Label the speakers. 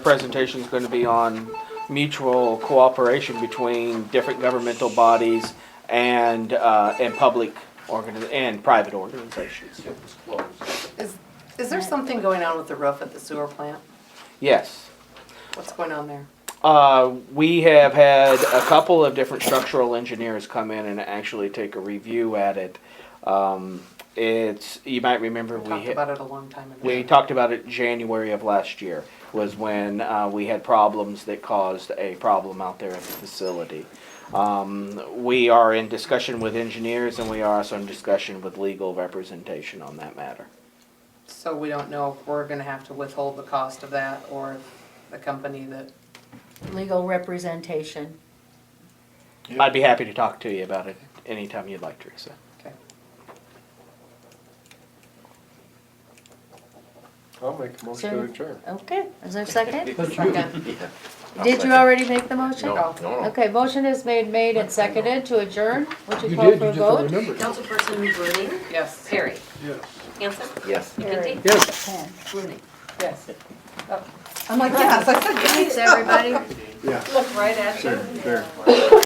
Speaker 1: Presentation's gonna be on mutual cooperation between different governmental bodies and, uh, and public organi- and private organizations.
Speaker 2: Is, is there something going on with the roof at the sewer plant?
Speaker 1: Yes.
Speaker 2: What's going on there?
Speaker 1: Uh, we have had a couple of different structural engineers come in and actually take a review at it. Um, it's, you might remember
Speaker 2: We
Speaker 1: we.
Speaker 2: talked
Speaker 1: ha-
Speaker 2: about it a long time ago.
Speaker 1: We talked about it January of last year, was when uh, we had problems that caused a problem out there at the facility. Um, We are in discussion with engineers and we are also in discussion with legal representation on that matter.
Speaker 2: So we don't know if we're gonna have to withhold the cost of that or if the company that,
Speaker 3: legal representation.
Speaker 1: I'd be happy to talk to you about it anytime you'd like, Teresa.
Speaker 2: okay.
Speaker 4: I'll make a motion to
Speaker 3: Sure.
Speaker 4: adjourn.
Speaker 3: Okay, is there a second?
Speaker 2: Second.
Speaker 3: Did you already make the motion?
Speaker 2: No,
Speaker 3: Okay, motion is made, made and seconded to adjourn. Would you
Speaker 4: You
Speaker 3: call
Speaker 4: did,
Speaker 3: for
Speaker 4: you
Speaker 3: a
Speaker 4: just don't
Speaker 3: vote?
Speaker 4: remember.
Speaker 5: Councilperson Bruning,
Speaker 2: Yes.
Speaker 5: Perry,
Speaker 4: Yes.
Speaker 5: Hanson,
Speaker 1: Yes.
Speaker 3: Carried.
Speaker 5: McGinty,
Speaker 4: Yes.
Speaker 3: Ten.
Speaker 5: Bruning.
Speaker 2: Yes. Oh, I'm like, yes, I said yes.
Speaker 5: Thanks, everybody.
Speaker 4: Yeah.
Speaker 5: Look right at you.
Speaker 4: There.